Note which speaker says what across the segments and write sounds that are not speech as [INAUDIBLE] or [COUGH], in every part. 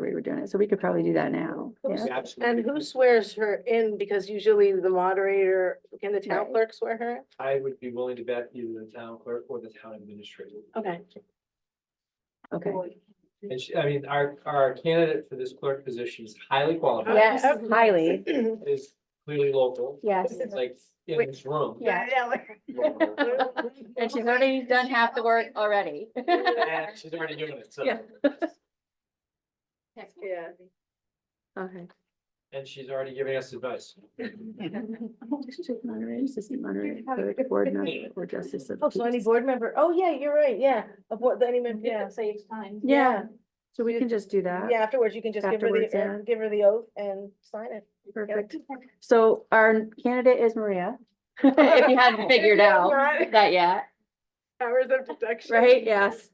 Speaker 1: we were doing it, so we could probably do that now. Yeah,
Speaker 2: Oops.
Speaker 3: And
Speaker 2: Absolutely.
Speaker 3: who swears her in? Because usually the moderator, can the town
Speaker 1: Right.
Speaker 3: clerk swear her? in?
Speaker 2: I would be willing to bet either the town clerk or the town administrator.
Speaker 3: Okay.
Speaker 1: okay.
Speaker 2: And she, I mean, our, our candidate for this clerk position is highly qualified,
Speaker 1: Yes,
Speaker 3: [LAUGHS]
Speaker 1: highly,
Speaker 2: is clearly local,
Speaker 1: yes,
Speaker 2: is like in this room.
Speaker 1: yeah.
Speaker 2: local,
Speaker 3: [LAUGHS]
Speaker 1: And she's already done half the work already. [LAUGHS]
Speaker 2: And she's already doing it, so,
Speaker 1: Yeah.
Speaker 3: Yeah.
Speaker 1: Okay.
Speaker 2: and she's already giving us advice.
Speaker 1: District moderator, assistant moderator, clerk, board member, or justice of.
Speaker 3: Oh, so any
Speaker 1: peace.
Speaker 3: board member, oh, yeah, you're right, yeah, of what, any member, yeah.
Speaker 4: Yeah, saves time.
Speaker 1: Yeah, so we can just do that.
Speaker 3: Yeah, afterwards, you can just give her
Speaker 1: Afterwards,
Speaker 3: the,
Speaker 1: yeah.
Speaker 3: uh, give her the oath and sign it. [LAUGHS]
Speaker 1: Perfect. So our candidate is Maria. [LAUGHS] If you [LAUGHS] hadn't figured out that yet,
Speaker 3: Powers of protection.
Speaker 1: right? Yes.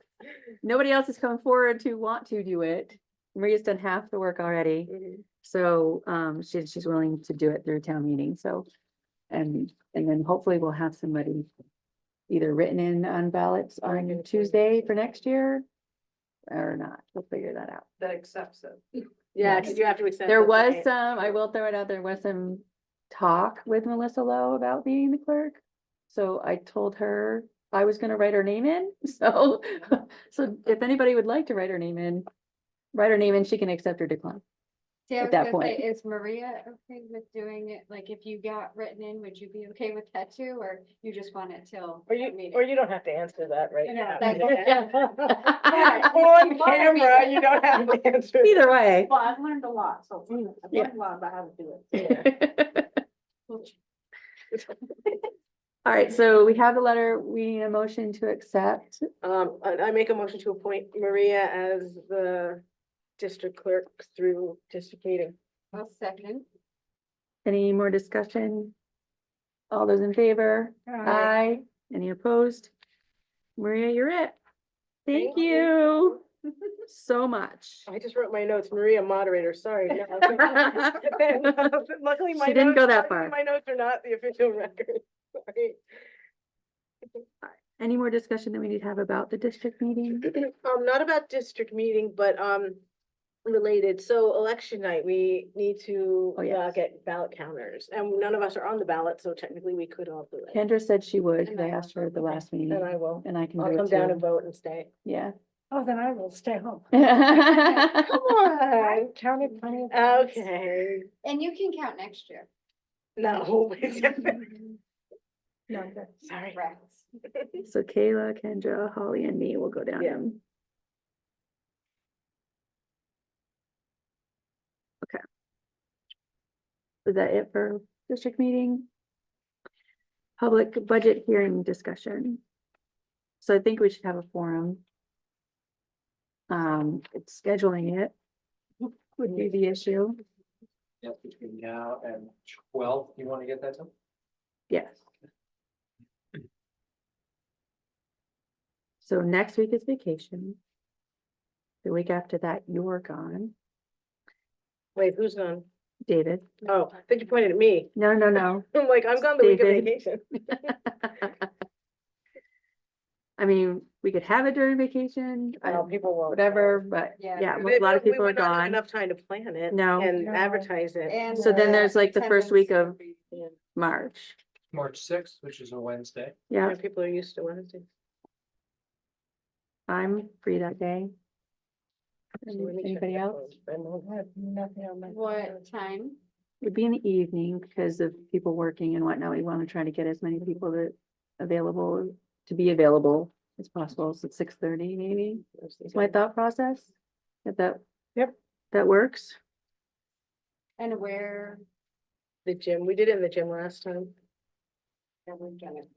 Speaker 1: Nobody else has come forward to want to do it. Maria's done half the work already.
Speaker 3: Mhm.
Speaker 1: So um she she's willing to do it through town meeting, so. And and then hopefully we'll have somebody either written in on ballots on Tuesday for next year. Or not, we'll figure that out.
Speaker 4: That accepts it.
Speaker 3: Yeah, because you have to accept.
Speaker 1: There
Speaker 3: it,
Speaker 1: was
Speaker 3: right?
Speaker 1: some, I will throw it out, there was some talk with Melissa Lowe about being the clerk. So I told her I was gonna write her name in, [LAUGHS] so, so if anybody would like to write her name in, write her name in, she can accept or decline.
Speaker 5: Yeah, I
Speaker 1: at
Speaker 5: was
Speaker 1: that
Speaker 5: gonna say,
Speaker 1: point.
Speaker 5: Is Maria okay with doing it? Like, if you got written in, would you be okay with that too, or you just want it till?
Speaker 3: Or
Speaker 5: town
Speaker 3: you,
Speaker 5: meeting? [LAUGHS]
Speaker 3: or you don't have to answer that right
Speaker 5: No,
Speaker 3: now.
Speaker 5: that's
Speaker 3: [LAUGHS] Yeah,
Speaker 5: Yeah,
Speaker 3: On
Speaker 5: you wanna be
Speaker 3: camera,
Speaker 5: there.
Speaker 3: you don't have [LAUGHS]
Speaker 5: [LAUGHS]
Speaker 3: to answer.
Speaker 1: Either way.
Speaker 4: Well, I've learned a lot, so mm, I've
Speaker 1: Yeah.
Speaker 4: learned a lot about how to do it.
Speaker 1: [LAUGHS] All right, so we have the letter, we need a motion to accept,
Speaker 3: Um, I, I make a motion to appoint Maria as the district clerk through district meeting.
Speaker 5: I'll second.
Speaker 1: any more discussion? All those in favor? Aye. Any opposed? Maria, you're it. Thank
Speaker 3: Thank you.
Speaker 1: you
Speaker 3: [LAUGHS]
Speaker 1: so much.
Speaker 3: I just wrote my notes, Maria moderator, sorry. [LAUGHS] No. Luckily, my.
Speaker 1: She didn't go
Speaker 3: notes-
Speaker 1: that
Speaker 3: luckily
Speaker 1: far.
Speaker 3: My notes are not the official [LAUGHS] record. Sorry.
Speaker 1: Any more discussion that we need to have about the district meeting?
Speaker 3: [CLEARS THROAT] Um, not about district meeting, but, um, related, so election night, we need to
Speaker 1: Oh,
Speaker 3: uh,
Speaker 1: yes.
Speaker 3: get ballot counters, and none of us are on the ballot, so technically we could all do it.
Speaker 1: Kendra said she would, 'cause
Speaker 5: And
Speaker 1: I
Speaker 5: I will
Speaker 1: asked her at the
Speaker 5: vote, okay.
Speaker 1: last
Speaker 3: And
Speaker 1: meeting,
Speaker 3: I will,
Speaker 1: and I can
Speaker 3: I'll
Speaker 1: do
Speaker 3: come down and
Speaker 1: it too.
Speaker 3: vote and stay.
Speaker 1: Yeah.
Speaker 4: Oh, then I will stay home.
Speaker 3: [LAUGHS]
Speaker 1: [LAUGHS]
Speaker 3: Come on, counted plenty of. Okay,
Speaker 5: And you can count next year.
Speaker 3: no. [LAUGHS]
Speaker 4: No, good.
Speaker 3: Sorry.
Speaker 5: Correct.
Speaker 1: So Kayla, Kendra, Holly and me will go down
Speaker 3: Yeah.
Speaker 1: and. Okay. Is that it for district meeting? Public budget hearing discussion. So I think we should have a forum. Um, it's scheduling it would be the issue.
Speaker 2: That's between now and twelve, you wanna get that done?
Speaker 1: Yes. So next week is vacation. The week after that, you're gone,
Speaker 3: Wait, who's gone?
Speaker 1: David.
Speaker 3: Oh, I think you pointed at me, [LAUGHS]
Speaker 1: No, no, no.
Speaker 3: I'm like, I'm gone the week of
Speaker 1: David.
Speaker 3: vacation.
Speaker 1: I mean, we could have it during vacation, I-
Speaker 3: Well, people won't.
Speaker 1: whatever, but
Speaker 5: Yeah.
Speaker 1: yeah,
Speaker 3: They
Speaker 1: a lot of
Speaker 3: probably
Speaker 1: people are
Speaker 3: would not have
Speaker 1: gone.
Speaker 3: Enough time to plan it.
Speaker 1: No.
Speaker 3: And
Speaker 4: No.
Speaker 3: advertise it.
Speaker 5: And
Speaker 1: So then there's like the first week
Speaker 5: attendance.
Speaker 1: March,
Speaker 2: March sixth, which is a Wednesday.
Speaker 1: yeah,
Speaker 3: Yeah, People are used to Wednesday.
Speaker 1: I'm free that day.
Speaker 3: So let me check
Speaker 1: Mm-hmm. Anybody
Speaker 3: that
Speaker 1: else?
Speaker 3: one. And we'll have nothing on my calendar.
Speaker 5: What time?
Speaker 1: It'd be in the evening because of people working and whatnot. We want to try to get as many people that available, to be available as possible. So six thirty maybe is my thought process. If that.
Speaker 3: Yep.
Speaker 1: That works.
Speaker 5: And where?
Speaker 3: The gym, we did it in the gym last time.
Speaker 5: yeah, we've done it.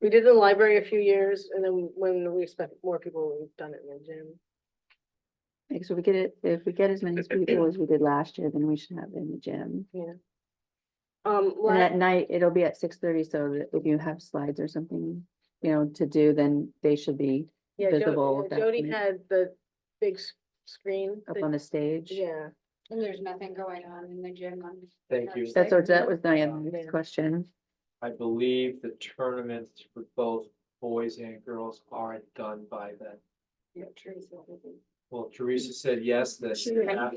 Speaker 3: We did it in the library a few years and then when we expect more people, we've done it in the gym.
Speaker 1: Because if we get it, if we get as many people as we did last year, then we should have it in the gym.
Speaker 3: Um,
Speaker 1: And at
Speaker 3: la-
Speaker 1: night, it'll be at six thirty, so that if you have slides or something, you know, to do, then they should be
Speaker 3: yeah, Jo-
Speaker 1: visible
Speaker 3: yeah,
Speaker 1: at that
Speaker 3: Jody
Speaker 1: point.
Speaker 3: had the big s- screen.
Speaker 1: up
Speaker 3: that-
Speaker 1: on the stage.
Speaker 3: Yeah,
Speaker 5: And there's nothing going on in the gym on.
Speaker 2: Thank you.
Speaker 1: That's, what- that was my
Speaker 3: Yeah.
Speaker 1: next question.
Speaker 2: I believe the tournaments for both boys and girls are done by then.
Speaker 5: Yeah, Teresa. will be-
Speaker 2: Well, Teresa said yes, that
Speaker 5: She-